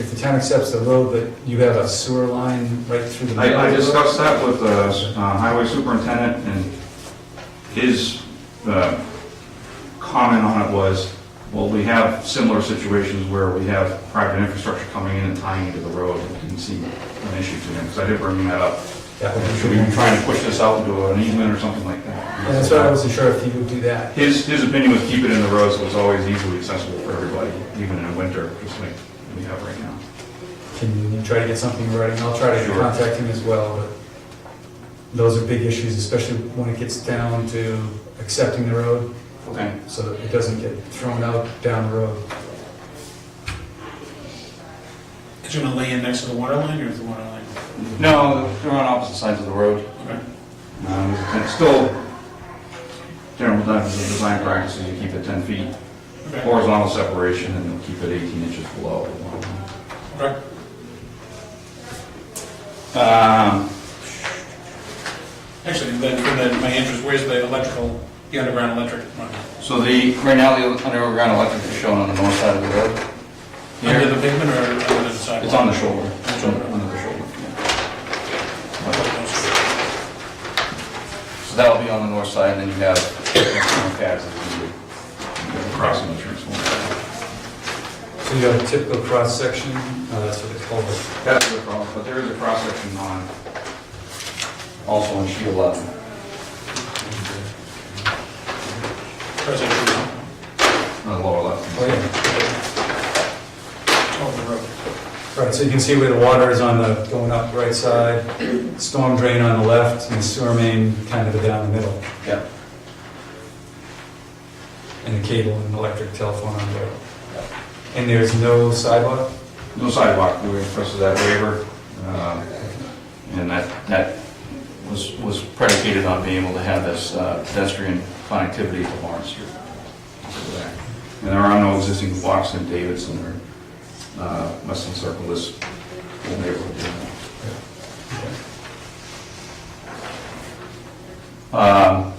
If the town accepts the road, but you have a sewer line right through the middle. I, I of the road? discussed that with the uh, highway superintendent, and his uh, comment on it was, well, we have similar situations where we have private infrastructure coming in and tying into the road, It didn't seem an issue to him, because I did bring that up. That would be Should true. we be trying to push this out into an easement or something like And that's why I that? wasn't sure if you would do that. His, his opinion was keep it in the road, so it's always easily accessible for everybody, even in winter, just like we have right now. Can you try to get something in writing? I'll try to Sure. contact him as well, but those are big issues, especially when it gets down to accepting the road, Okay. so that it doesn't get thrown out down the road. Is it gonna lay in next to the water line or is the water line? No, they're on opposite sides of the road. Okay. Um, It's still, general practice of design practices, you keep it 10 feet Okay. horizontal separation and you'll keep it 18 inches below. Okay. Um, Actually, then, for the- my interest, where's the electrical, the underground electric one? So the, right now, the underground electric is shown on the north side of the road. Under Here, the pavement or under the it's on sidewalk? the shoulder, It's on- under the shoulder. yeah. the. So that'll be on the north side, and then you have transformer pads that you do. Crossing the transformer. So you have a typical cross-section, uh, that's what they call it. That's the problem, but there is a cross section on, also on Shield 11. President, On the lower left. Oh, yeah. Oh, over the road. Right, so you can see where the water is on the, going up right side, storm drain on the left, and sewer main kind of down the middle, Yeah. and the cable and electric telephone on there. And there's no sidewalk? No sidewalk, we requested that waiver, um, and that, that was, was predicated on being able to have this uh, pedestrian connectivity to Lawrence Street. And there are no existing blocks in Davidson or uh, Weston Circle, this whole neighborhood. Um, I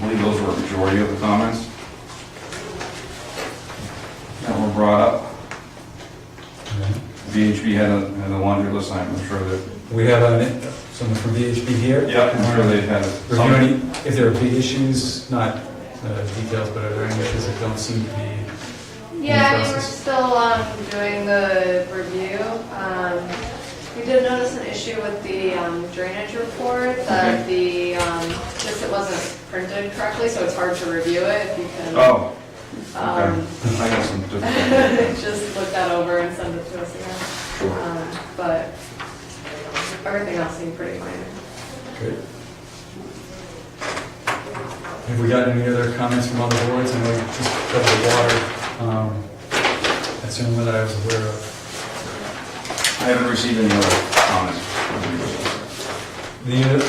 believe those were a majority of the comments that were brought up. VHB had a, had a laundry list, I'm sure that. We have a- someone from VHB here. I'm sure they had. some- Review any, if there are big issues, not uh, details, but are there any issues that don't seem to be, Yeah, I mean, we're process? still um, doing the review. Um, We did notice an issue with the um, drainage report, Mm-hmm. that the, um, just it wasn't printed correctly, so it's hard to review it because Oh, um, okay. I got some different. just look that over and send it to us again. Sure. Um, But everything else seemed pretty minor. good? Have we gotten any other comments from other boards? I know we just covered the water, um, that's the only one that I was aware of. I haven't received any other comments. The, other-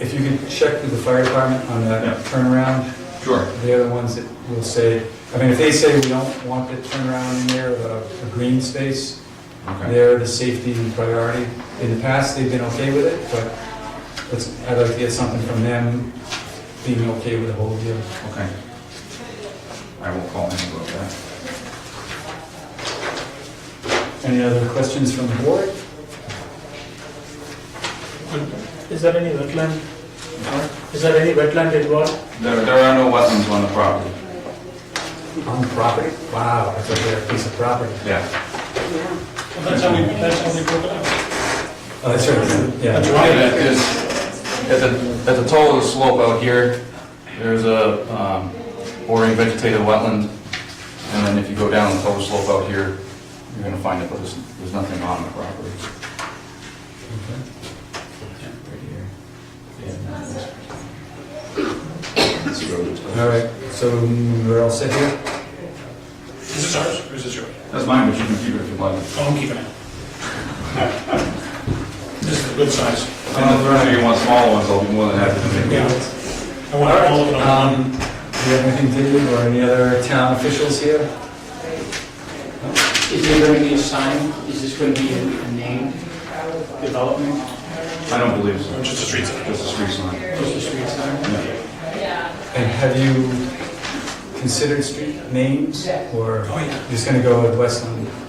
if you could check with the fire department on Yeah. that turnaround, Sure. the other ones that will say, I mean, if they say we don't want the turnaround in there, but a a green space, Okay. They're the safety priority. In the past, they've been okay with it, but let's- I'd like to get something from them being okay with the whole deal. Okay. I will call him about that. Any other questions from the board? Is there any wetland, is there any wetland involved? There, there are no wetlands on the property. On the property? Wow, that's a rare piece of property. Yeah. Well, that's how we, that's how we broke it up. Oh, that's right, That's yeah. right. And it is- At the, at the toe of the slope out here, there's a um, bordering vegetated wetland. And then if you go down the toe of the slope out here, you're gonna find it, but there's, there's nothing on the property. Right here. Yeah. This road. All right, so mm, we're all set here? Is this ours or is this yours? That's mine, but you can keep it if you'd like. Oh, I'm keeping it. This is a good size. And if there's- if you want smaller ones, I'll be more than happy to make. Yeah. I want all of it on one. Um, Do you have anything, David, or any other town officials here? Is there going to be a sign? Is this going to be a named development? I don't believe so. Or just a street sign. Just a street sign. Just a street sign? And have you considered street names, or Oh, yeah. just going to go with Westland?